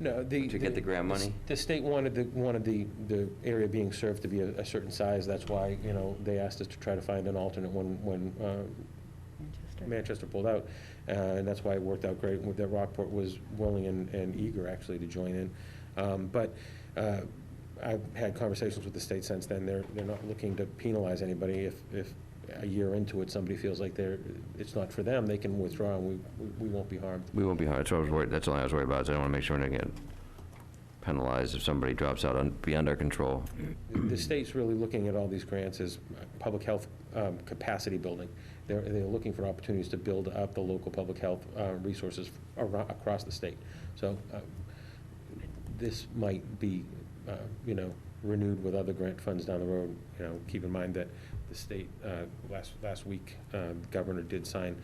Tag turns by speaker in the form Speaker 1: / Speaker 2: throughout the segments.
Speaker 1: No, the...
Speaker 2: To get the grant
Speaker 1: s-
Speaker 2: money?
Speaker 1: The state wanted the, wanted the, the area being served to be a, a certain size. That's why, you know, they asked us to try to find an alternate when, when uh, Manchester pulled out. Uh, And that's why it worked out great, with that Rockport was willing and, and eager actually to join in. Um, But uh, I've had conversations with the state since then. They're, they're not looking to penalize anybody. If, if a year into it, somebody feels like they're, it's not for them, they can withdraw and we, we- we won't be harmed.
Speaker 2: We won't be harmed, that's what I was worried, that's all I was worried about, is I don't want to make sure we don't get penalized if somebody drops out on- beyond our control.
Speaker 1: the state's really looking at all these grants as uh, public health um, capacity building. They're, they're looking for opportunities to build up the local public health uh, resources aro- across the state. So uh, this might be, uh, you know, renewed with other grant funds down the road. You know, keep in mind that the state, uh, last, last week, uh, the Governor did sign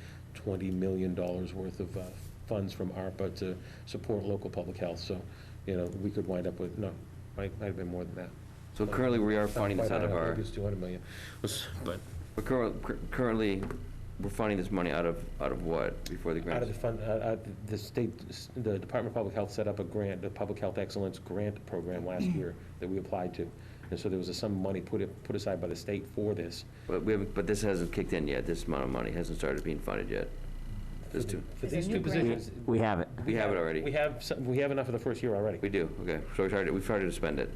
Speaker 1: $20 million worth of uh, funds from ARPA to support local public health. So, you know, we could wind up with, no, might, might have been more than that.
Speaker 2: So currently, we are funding this
Speaker 1: Quite
Speaker 2: out of
Speaker 1: high, I
Speaker 2: our,
Speaker 1: think it's 200 million. Was- But
Speaker 2: we're curr- cur- currently, we're funding this money out of, out of what, before the
Speaker 1: out of
Speaker 2: grants?
Speaker 1: the fund, out- out the- the state, the Department of Public Health set up a grant, the Public Health Excellence Grant Program last
Speaker 3: Mm.
Speaker 1: year that we applied to. And so there was a sum of money put, it- put aside by the state for this.
Speaker 2: But we haven't, but this hasn't kicked in yet, this amount of money hasn't started being funded yet. This two,
Speaker 1: For
Speaker 3: Is there
Speaker 1: these
Speaker 3: new
Speaker 1: two
Speaker 3: grant?
Speaker 1: positions.
Speaker 4: We have it.
Speaker 2: we have it
Speaker 1: We
Speaker 2: already,
Speaker 1: have, some- we have enough for the first year already.
Speaker 2: we do, okay, so we started, we started to spend it,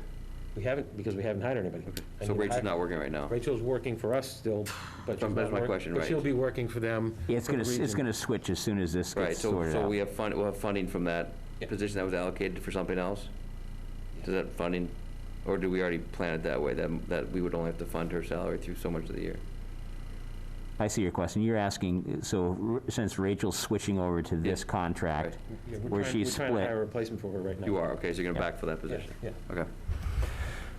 Speaker 1: We haven't, because we haven't hired anybody. I
Speaker 2: so
Speaker 1: mean,
Speaker 2: Rachel's
Speaker 1: I-
Speaker 2: not working right now.
Speaker 1: Rachel's working for us still, but she's
Speaker 2: That's
Speaker 1: not
Speaker 2: my
Speaker 1: work-
Speaker 2: question,
Speaker 1: But
Speaker 2: right.
Speaker 1: she'll be working for them.
Speaker 4: Yeah, it's
Speaker 1: for the
Speaker 4: gonna, it's
Speaker 1: region.
Speaker 4: gonna switch as soon as this
Speaker 2: Right,
Speaker 4: gets
Speaker 2: so,
Speaker 4: sorted
Speaker 2: so
Speaker 4: out.
Speaker 2: we have fund, we'll have funding from that
Speaker 1: Yeah.
Speaker 2: position that was allocated for something else? Does that funding, or do we already plan it that way, that, that we would only have to fund her salary through so much of the year?
Speaker 4: I see your question. You're asking, so r- since Rachel's switching over to this contract,
Speaker 1: Yeah, we're
Speaker 4: where
Speaker 1: trying-
Speaker 4: she's
Speaker 1: We're trying
Speaker 4: split.
Speaker 1: to hire a replacement for her right now.
Speaker 2: You are, okay, so you're gonna
Speaker 4: Yeah.
Speaker 2: backfill that
Speaker 1: Yeah,
Speaker 2: position?
Speaker 1: Yeah.
Speaker 2: Okay.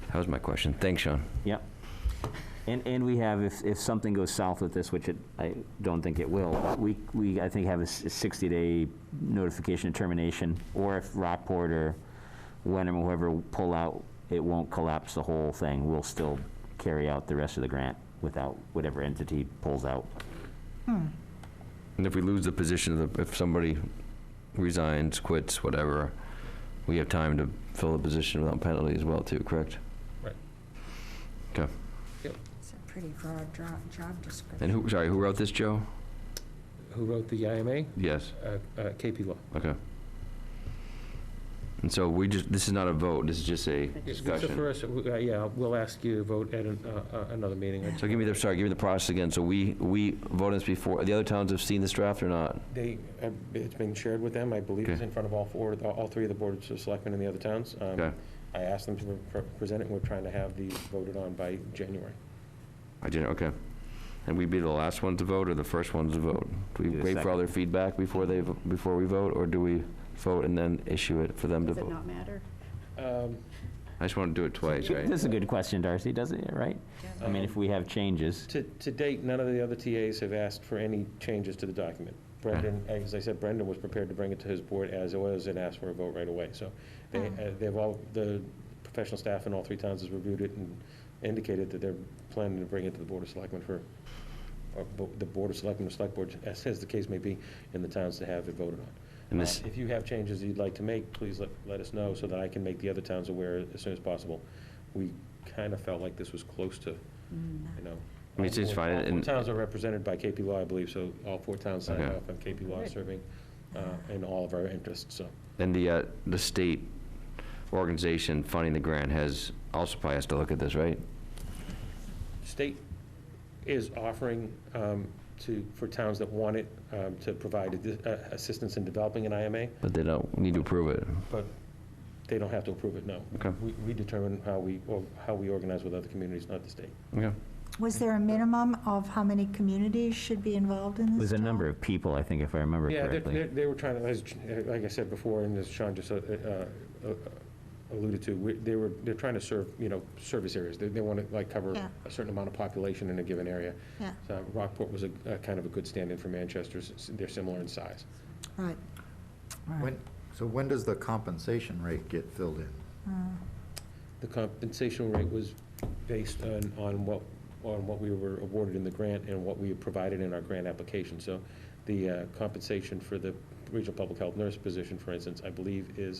Speaker 2: That was my question. Thanks, Sean.
Speaker 4: yep. And, and we have, if, if something goes south with this, which it, I don't think it will, we, we, I think, have a s- a 60-day notification of termination, or if Rockport or Wenham, or whoever pull out, it won't collapse the whole thing. We'll still carry out the rest of the grant without whatever entity pulls out.
Speaker 2: And if we lose the position, if somebody resigns, quits, whatever, we have time to fill the position without penalty as well, too, correct?
Speaker 1: Right.
Speaker 2: Okay.
Speaker 3: It's a pretty broad dro- job description.
Speaker 2: And who, sorry, who wrote this, Joe?
Speaker 1: Who wrote the IMA?
Speaker 2: Yes,
Speaker 1: Uh, uh, KP Law.
Speaker 2: okay. And so we just, this is not a vote, this is just a
Speaker 1: Yeah, So
Speaker 2: discussion.
Speaker 1: for us, we- uh, yeah, we'll ask you to vote at an, uh, uh, another meeting.
Speaker 2: So give me the, sorry, give me the process again. So we, we voted this before, the other towns have seen this draft or not?
Speaker 1: They, uh, it's been shared with them, I believe it's
Speaker 2: Okay.
Speaker 1: in front of all four, all three of the boards of selectmen in the other towns. Um,
Speaker 2: Okay.
Speaker 1: I asked them to pre- pre- present it, and we're trying to have these voted on by January.
Speaker 2: I did, okay. And we'd be the last ones to vote or the first ones to vote? Do we
Speaker 4: Do the
Speaker 2: wait for all their
Speaker 4: second.
Speaker 2: feedback before they, vo- before we vote, or do we vote and then issue it for them to
Speaker 3: Does it
Speaker 2: vote?
Speaker 3: not matter?
Speaker 1: Um,
Speaker 2: I just want to do it twice, right?
Speaker 4: That's a good question, Darcy, doesn't it, right? I mean, if we have changes.
Speaker 1: To, to date, none of the other TAs have asked for any changes to the document. Brendan,
Speaker 2: Mm-hmm.
Speaker 1: as I said, Brendan was prepared to bring it to his board as it was and asked for a vote right away. So they,
Speaker 2: Mm.
Speaker 1: uh, they've all, the professional staff in all three towns has reviewed it and indicated that they're planning to bring it to the Board of Selectmen for, or bo- the Board of Selectmen or Select Board, as, as the case may be, in the towns to have it voted on.
Speaker 2: And
Speaker 1: Uh,
Speaker 2: this-
Speaker 1: If you have changes you'd like to make, please let, let us know so that I can make the other towns aware as soon as possible. We kind of felt like this was close to,
Speaker 3: Mm,
Speaker 1: you know.
Speaker 2: I mean, it's
Speaker 1: all
Speaker 2: just
Speaker 1: four-
Speaker 2: fine,
Speaker 1: all four
Speaker 2: and-
Speaker 1: towns are represented by KP Law, I believe, so all four towns signed
Speaker 2: Okay.
Speaker 1: off on KP Law serving uh, in all of our interests, so.
Speaker 2: And the, uh, the state organization funding the grant has, also probably has to look at this, right?
Speaker 1: State is offering um, to, for towns that want it, um, to provide adi- uh, assistance in developing an IMA,
Speaker 2: But they don't need to approve it.
Speaker 1: but they don't have to approve it, no.
Speaker 2: Okay.
Speaker 1: We- We determine how we, or how we organize with other communities, not the state.
Speaker 2: Okay.
Speaker 5: Was there a minimum of how many communities should be involved in this?
Speaker 4: There's a
Speaker 5: job?
Speaker 4: number of people, I think, if I remember
Speaker 1: Yeah, they- they,
Speaker 4: correctly.
Speaker 1: they were trying to, as- like I said before, and as Sean just uh, uh, alluded to, we- they were, they're trying to serve, you know, service areas. They, they want to like cover
Speaker 5: Yeah.
Speaker 1: a certain amount of population in a given area.
Speaker 5: Yeah,
Speaker 1: So Rockport was a, a kind of a good stand-in for Manchester, since they're similar in size.
Speaker 5: right. Right.
Speaker 6: When, so when does the compensation rate get filled in?
Speaker 5: Uh,
Speaker 1: The compensation rate was based on, on what, on what we were awarded in the grant and what we provided in our grant application. So the uh, compensation for the regional public health nurse position, for instance, I believe is